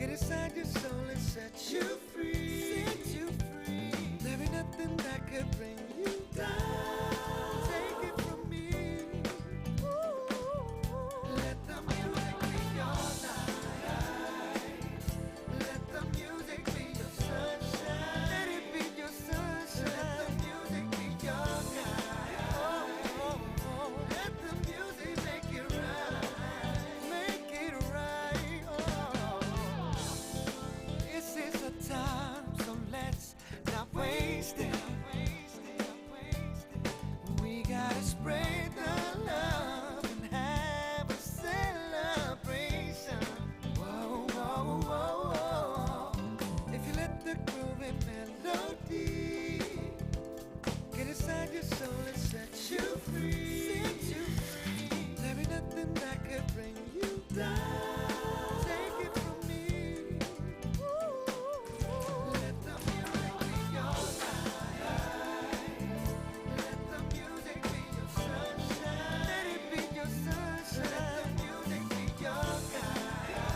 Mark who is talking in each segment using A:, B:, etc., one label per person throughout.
A: inside your soul and set you free. Set you free. There ain't nothing that could bring you down. Take it from me. Let the music be your light. Let the music be your sunshine. Let it be your sunshine. Let the music be your guide. Oh, oh, oh. Let the music make it right. Make it right. Oh. This is a time, so let's not waste it. We gotta spread the love and have a celebration. Whoa, whoa, whoa, whoa. If you let the groove and melody get inside your soul and set you free. Set you free. There ain't nothing that could bring you down. Take it from me. Let the music be your light. Let the music be your sunshine. Let it be your sunshine. Let the music be your guide.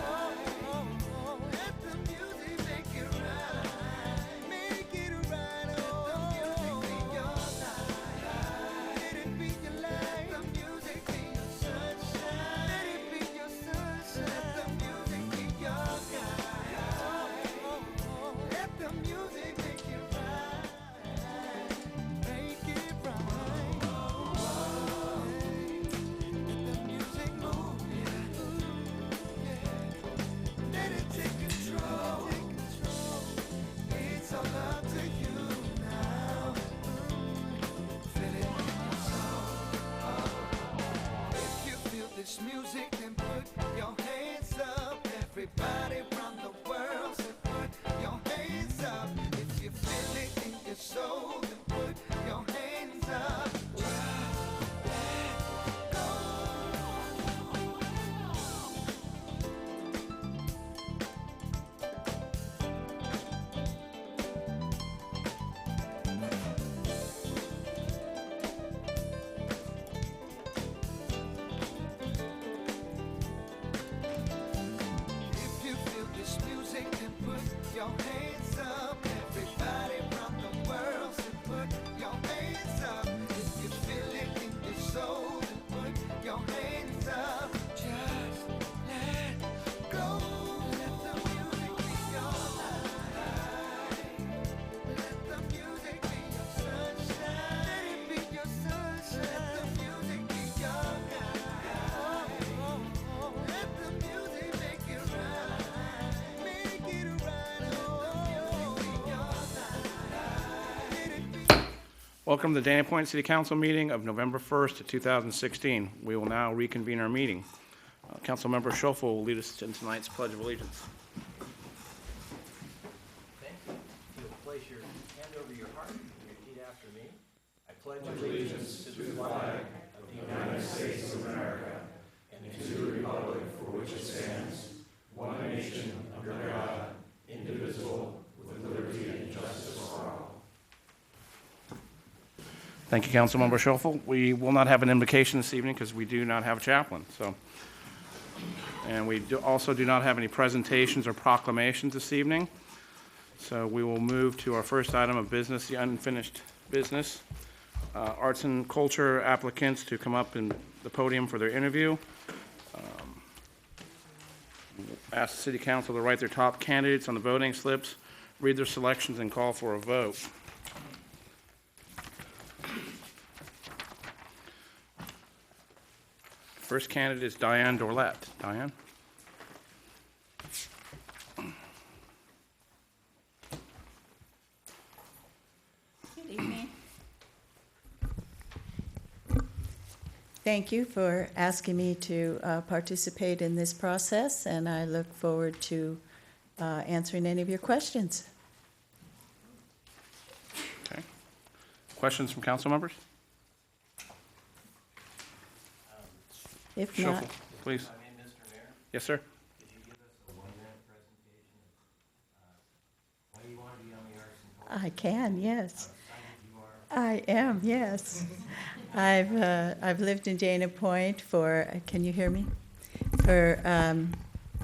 A: Oh, oh, oh. Let the music make it right. Make it right. Oh, Let the music be your light. Let it be your light. Let the music be your sunshine. Let it be your sunshine. Let the music be your guide. Oh, oh, oh. Let the music make it right. Make it right. Let the music move you. Yeah. Let it take control. It's all up to you now. Feel it in your soul. If you feel this music, then put your hands up. Everybody around the world, so put your hands up. If you feel it in your soul, then put your hands up. If you feel this music, then put your hands up. Everybody around the world, so put your hands up. If you feel it in your soul, then put your hands up. Just let go. Let the music be your light. Let the music be your sunshine. Let it be your sunshine. Let the music be your guide. Let the music make it right. Make it right. Oh, let the music be your light. Let it be.
B: Welcome to the Dana Point City Council meeting of November 1st, 2016. We will now reconvene our meeting. Uh, Councilmember Schoeffel will lead us in tonight's Pledge of Allegiance.
C: Thank you. If you'll place your hand over your heart and repeat after me. I pledge allegiance to the flag of the United States of America and to the republic for which it stands, one nation under God, indivisible, with liberty and justice for all.
B: Thank you, Councilmember Schoeffel. We will not have an invocation this evening because we do not have a chaplain, so. And we do- also do not have any presentations or proclamations this evening. So we will move to our first item of business, the unfinished business. Uh, Arts and culture applicants to come up in the podium for their interview. Um, Ask the city council to write their top candidates on the voting slips, read their selections, and call for a vote. First candidate is Diane Dorlett. Diane?
D: Good evening. Thank you for asking me to uh, participate in this process, and I look forward to uh, answering any of your questions.
B: Okay. Questions from council members?
D: If not,
B: Shuffle, please.
C: I mean, Mr. Mayor,
B: Yes, sir.
C: could you give us a one-minute presentation of uh, why you want to be on the Arts and Culture?
D: I can, yes.
C: Excited you are.
D: I am, yes. I've, uh, I've lived in Dana Point for, can you hear me? For um,